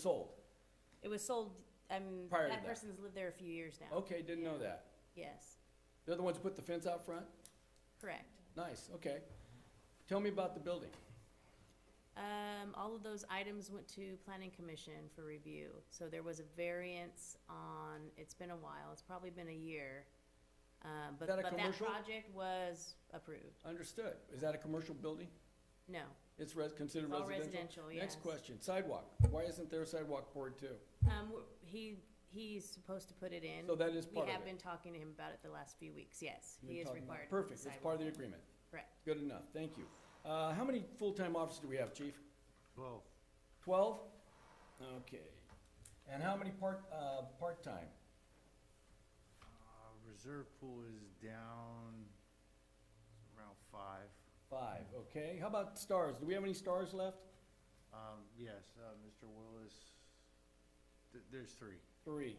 sold. It was sold, um, Prior to that that. person's lived there a few years now. Okay, didn't know that. Yes, They're the ones who put the fence out front? correct. Nice, okay. Tell me about the building. Um, all of those items went to planning commission for review. So there was a variance on, it's been a while, it's probably been a year. Um, but, that a but that commercial? project was approved. Understood. Is that a commercial building? No, It's res, considered It's all residential? residential, yes. Next question, sidewalk. Why isn't there a sidewalk board too? um, w- he, he's supposed to put it in. So that is part We of have it. been talking to him about it the last few weeks, yes. You've He been is talking about- required. to put Perfect, it's part sidewalk. of the agreement. Correct. Good enough, thank you. Uh, how many full-time officers do we have, chief? Well, Twelve? Okay. And how many part, uh, part-time? uh, reserve pool is down around five. Five, okay. How about stars? Do we have any stars left? Um, yes, uh, Mr. Willis, th- there's three. Three.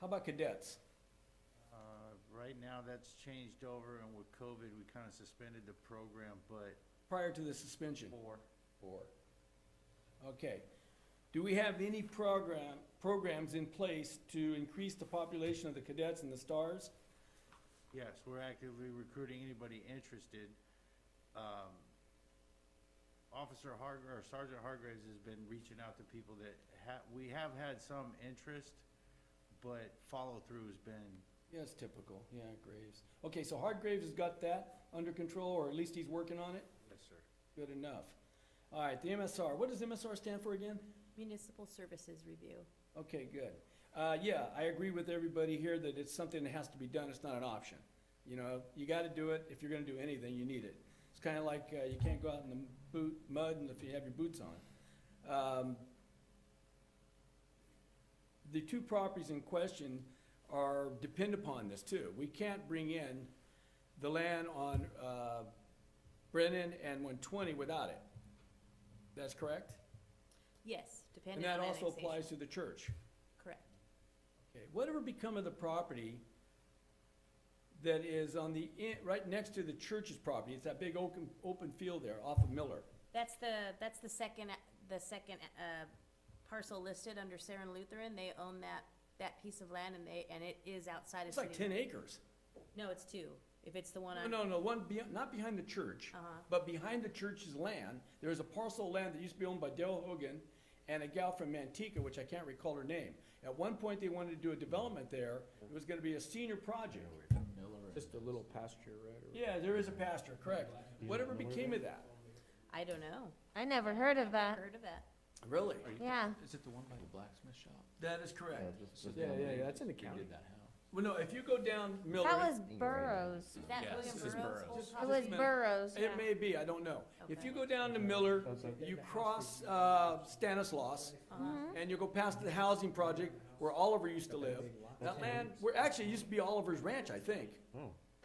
How about cadets? Uh, right now, that's changed over, and with COVID, we kind of suspended the program, but Prior to the suspension? four. Four. Okay. Do we have any program, programs in place to increase the population of the cadets and the stars? Yes, we're actively recruiting anybody interested. Um, Officer Hargr, or Sergeant Hargraves has been reaching out to people that ha- we have had some interest, but follow-through has been Yes, typical, yeah, Graves. Okay, so Hargraves has got that under control, or at least he's working on it? Yes, sir. Good enough. All right, the MSR, what does MSR stand for again? Municipal services review. Okay, good. Uh, yeah, I agree with everybody here that it's something that has to be done, it's not an option. You know, you gotta do it, if you're gonna do anything, you need it. It's kinda like, uh, you can't go out in the boot, mud and if you have your boots on. Um, the two properties in question are, depend upon this too. We can't bring in the land on, uh, Brennan and one twenty without it. That's correct? Yes, And depending on that annexation. also applies to the church. Correct. Okay, whatever become of the property that is on the, in- right next to the church's property, it's that big open, open field there off of Miller. That's the, that's the second, the second, uh, parcel listed under Saren Lutheran, they own that, that piece of land and they, and it is outside of It's city. like ten acres. No, it's two, if it's the one No, on, no, no, one, be- not behind the church, Uh-huh. but behind the church's land, there is a parcel of land that used to be owned by Dale Hogan and a gal from Manteca, which I can't recall her name. At one point, they wanted to do a development there. It was gonna be a senior project. Just a little pasture, right? Yeah, there is a pastor, correct. Whatever became of that? I don't know, I never heard of that. heard of that. Really? Yeah. Is it the one by the black? That is correct. Yeah, yeah, yeah, it's in the county. Well, no, if you go down Miller. That was Burroughs. Is that William this is Burroughs' whole Burroughs. It property? was Burroughs, yeah. It may be, I don't know. If you Okay. go down to Miller, you cross uh, Stanislaus, Uh-huh. and you go past the housing project where Oliver used to live. That land, where, actually, it used to be Oliver's Ranch, I think.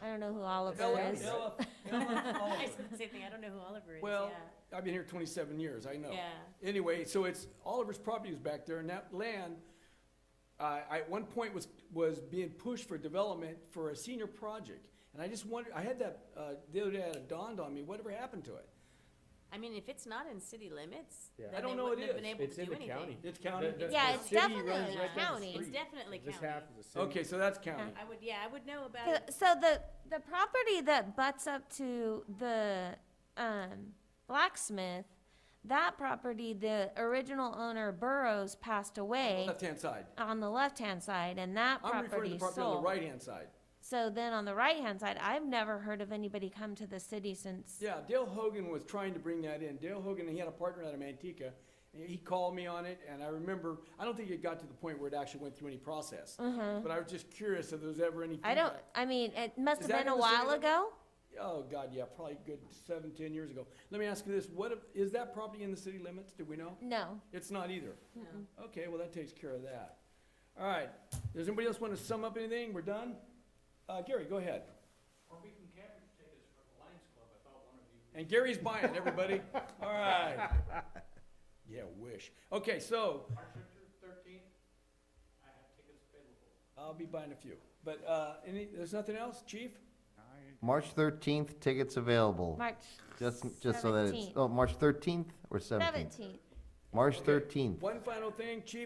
I don't know who Ella- Oliver is. Ella- Ella I Oliver. said the same thing, I don't know who Oliver is, Well, yeah. I've been here twenty-seven years, I know. Yeah. Anyway, so it's, Oliver's property is back there, and that land, uh, I, at one point was, was being pushed for development for a senior project. And I just wondered, I had that, uh, the other day, it dawned on me, whatever happened to it? I mean, if it's not in city limits, Yeah. then I don't they know it wouldn't have been is. able to It's do in the anything. county. It's county? The- the- Yeah, the it's city definitely runs right down the county. It's street. It's definitely Just county. half of the city. Okay, so that's county. I would, yeah, I would know about So- it. So the, the property that butts up to the, um, blacksmith, that property, the original owner Burroughs passed away Left-hand side. on the left-hand side and that I'm referring to property the property on the sold. right-hand side. So then on the right-hand side, I've never heard of anybody come to the city since Yeah, Dale Hogan was trying to bring that in. Dale Hogan, he had a partner out of Manteca. and He called me on it, and I remember, I don't think it got to the point where it actually went through any process. But I was just curious if there was ever any. Mm-hmm. I don't, feedback. I mean, it must Is have that been a in the city while limits? ago. Oh, God, yeah, probably good seven, ten years ago. Let me ask you this, what, if- is that property in the city limits? Do we know? No. It's not either. No. Okay, well, that takes care of that. All right, does anybody else want to sum up anything? We're done? Uh, Gary, go ahead. Or we can capture tickets for the Lions Club, I thought one of you And Gary's buying, everybody. All right. Yeah, wish. Okay, so March thirteenth, I have tickets available. I'll be buying a few. But, uh, any, there's nothing else, chief? I March thirteenth, tickets available. March Just, just so that it's, 17th. oh, March thirteenth or seventeenth? Seventeenth. March Okay, thirteenth. One final thing, Chief,